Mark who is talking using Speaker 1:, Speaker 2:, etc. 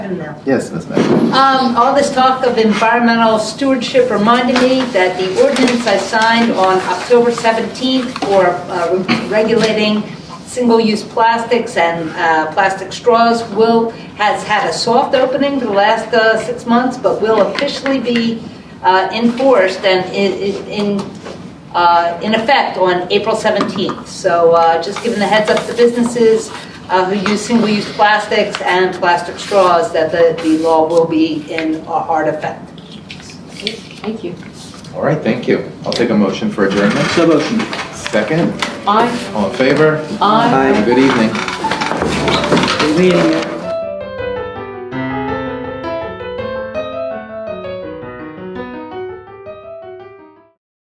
Speaker 1: Windmill.
Speaker 2: Yes, Ms. Mayor.
Speaker 1: Um, all this talk of environmental stewardship reminded me that the ordinance I signed on October 17th for uh, regulating single-use plastics and uh, plastic straws will, has had a soft opening for the last uh, six months, but will officially be uh, enforced and i- i- in uh, in effect on April 17th. So uh, just giving the heads up to businesses uh, who use single-use plastics and plastic straws that the, the law will be in uh, hard effect.
Speaker 3: Thank you.
Speaker 2: All right, thank you. I'll take a motion for adjournment.
Speaker 4: So motion.
Speaker 2: Second,
Speaker 3: Aye.
Speaker 2: all in favor?
Speaker 3: Aye.
Speaker 2: Have a Good evening.
Speaker 4: Meeting.